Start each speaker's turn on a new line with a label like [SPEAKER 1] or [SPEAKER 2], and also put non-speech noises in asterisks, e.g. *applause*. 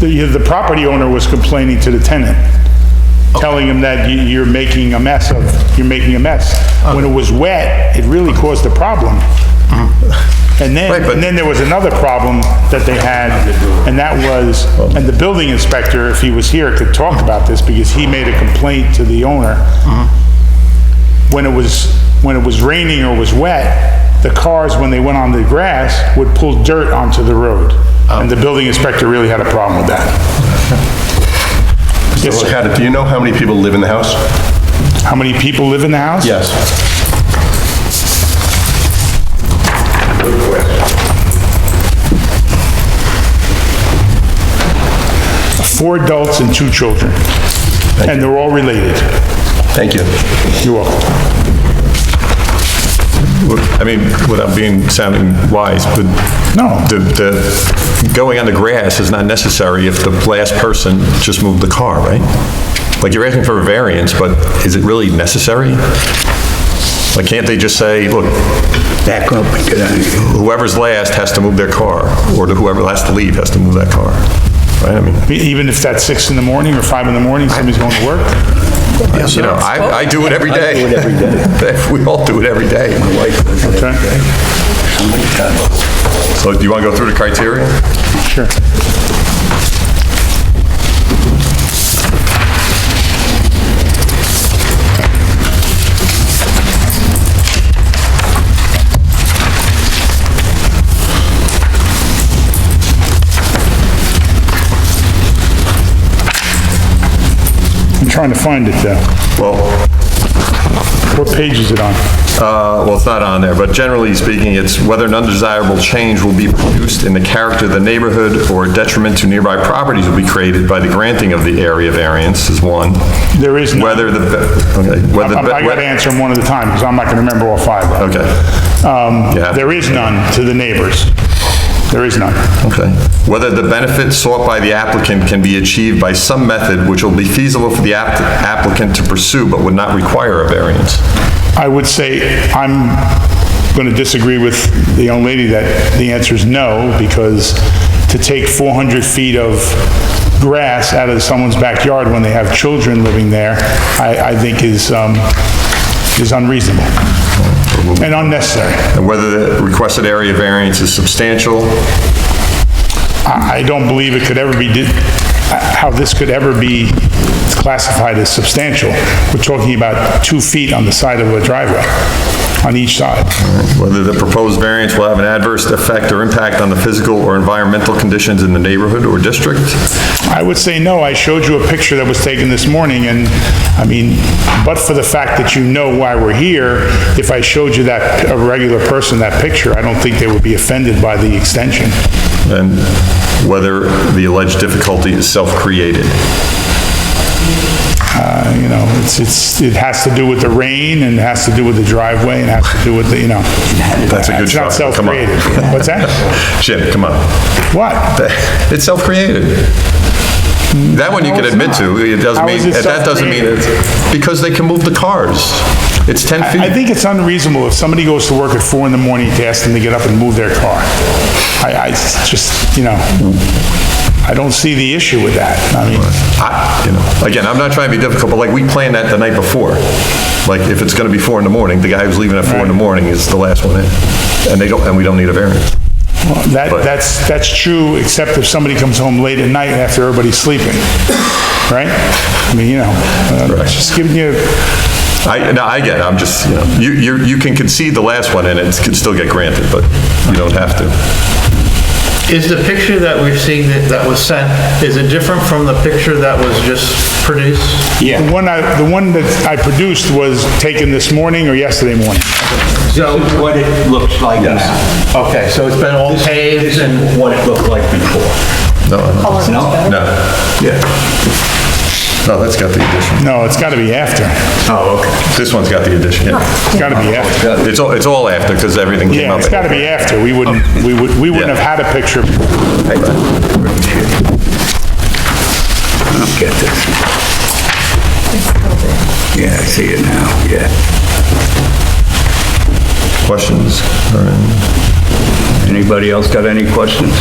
[SPEAKER 1] The, the property owner was complaining to the tenant, telling him that you- you're making a mess of, you're making a mess. When it was wet, it really caused a problem. And then,
[SPEAKER 2] Right, but-
[SPEAKER 1] and then there was another problem that they had, and that was, and the building inspector, if he was here, could talk about this, because he made a complaint to the owner. When it was, when it was raining or was wet, the cars, when they went on the grass, would pull dirt onto the road. And the building inspector really had a problem with that. Yes, sir.
[SPEAKER 2] Kat, do you know how many people live in the house?
[SPEAKER 1] How many people live in the house?
[SPEAKER 2] Yes.
[SPEAKER 1] Four adults and two children. And they're all related.
[SPEAKER 2] Thank you.
[SPEAKER 1] You're welcome.
[SPEAKER 3] I mean, without being sounding wise, but.
[SPEAKER 1] No.
[SPEAKER 3] The, the, going on the grass is not necessary if the last person just moved the car, right? Like, you're asking for a variance, but is it really necessary? Like, can't they just say, look,
[SPEAKER 4] back up and get out of here.
[SPEAKER 3] whoever's last has to move their car, or whoever has to leave has to move that car, right? I mean,
[SPEAKER 1] E-, Even if that's six in the morning or five in the morning, somebody's going to work?
[SPEAKER 3] you know, I, I do it every day.
[SPEAKER 4] do it every
[SPEAKER 3] day. *laughs* We all do it every day.
[SPEAKER 4] My wife does it every
[SPEAKER 1] Okay.
[SPEAKER 4] day. How many times?
[SPEAKER 3] So do you want to go through the criteria?
[SPEAKER 1] Sure. I'm trying to find it though.
[SPEAKER 3] Well,
[SPEAKER 1] What page is it on?
[SPEAKER 3] Uh, Well, it's not on there, but generally speaking, it's whether an undesirable change will be produced in the character of the neighborhood or detriment to nearby properties will be created by the granting of the area variance is one.
[SPEAKER 1] There is none.
[SPEAKER 3] Whether the, okay, whether.
[SPEAKER 1] I'm- I gotta answer them one at a time because I'm not gonna remember all five of them.
[SPEAKER 3] Okay.
[SPEAKER 1] Um,
[SPEAKER 3] Yeah.
[SPEAKER 1] There is none to the neighbors. There is none.
[SPEAKER 3] Okay. Whether the benefit sought by the applicant can be achieved by some method which will be feasible for the app- applicant to pursue but would not require a variance.
[SPEAKER 1] I would say I'm going to disagree with the young lady that the answer is no, because to take 400 feet of grass out of someone's backyard when they have children living there, I, I think is, um, is unreasonable and unnecessary.
[SPEAKER 3] And whether the requested area variance is substantial,
[SPEAKER 1] I, I don't believe it could ever be, di- how this could ever be classified as substantial. We're talking about two feet on the side of a driveway, on each side.
[SPEAKER 3] Whether the proposed variance will have an adverse effect or impact on the physical or environmental conditions in the neighborhood or district?
[SPEAKER 1] I would say no. I showed you a picture that was taken this morning, and, I mean, but for the fact that you know why we're here, if I showed you that, a regular person, that picture, I don't think they would be offended by the extension.
[SPEAKER 3] And whether the alleged difficulty is self-created?
[SPEAKER 1] Uh, You know, it's, it's, it has to do with the rain, and it has to do with the driveway, and it has to do with the, you know.
[SPEAKER 3] That's a good
[SPEAKER 1] It's
[SPEAKER 3] shot.
[SPEAKER 1] not
[SPEAKER 3] Come on.
[SPEAKER 1] self-created. What's that?
[SPEAKER 3] Jim, come on.
[SPEAKER 1] What?
[SPEAKER 3] It's self-created. That one you can
[SPEAKER 1] No, it's
[SPEAKER 3] admit to. It doesn't
[SPEAKER 1] How
[SPEAKER 3] mean,
[SPEAKER 1] is it
[SPEAKER 3] that doesn't mean,
[SPEAKER 1] self-created?
[SPEAKER 3] it's- because they can move the cars. It's 10 feet.
[SPEAKER 1] I think it's unreasonable if somebody goes to work at four in the morning to ask them to get up and move their car. I, I just, you know, I don't see the issue with that. I mean,
[SPEAKER 3] I- you know, again, I'm not trying to be difficult, but like, we planned that the night before. Like, if it's gonna be four in the morning, the guy who's leaving at four in the morning is the last one in. And they don't, and we don't need a variance.
[SPEAKER 1] well, that, that's, that's true, except if somebody comes home late at night after everybody's sleeping, right? I mean, you know, uh,
[SPEAKER 3] Right.
[SPEAKER 1] just giving you,
[SPEAKER 3] I, no, I get it, I'm just, you know, you, you you can concede the last one and it can still get granted, but you don't have to.
[SPEAKER 5] Is the picture that we're seeing that that was sent, is it different from the picture that was just produced?
[SPEAKER 1] the one I, the one that I produced was taken this morning or yesterday morning.
[SPEAKER 4] So what it looks like now.
[SPEAKER 5] Okay, so it's been all paved and,
[SPEAKER 4] What it looked like before.
[SPEAKER 3] No, no,
[SPEAKER 4] No?
[SPEAKER 3] no. yeah. No, that's got the addition.
[SPEAKER 1] No, it's gotta be after.
[SPEAKER 4] Oh, okay.
[SPEAKER 3] This one's got the addition, yeah.
[SPEAKER 1] It's gotta be after.
[SPEAKER 3] It's all, it's all after, because everything Oh, came
[SPEAKER 1] Yeah,
[SPEAKER 3] up.
[SPEAKER 1] it's gotta be after. We wouldn't, we would, we wouldn't
[SPEAKER 3] Yeah.
[SPEAKER 1] have had a picture.
[SPEAKER 4] I don't get this. Yeah, I see it now, yeah.
[SPEAKER 3] Questions? All right.
[SPEAKER 4] Anybody else got any questions?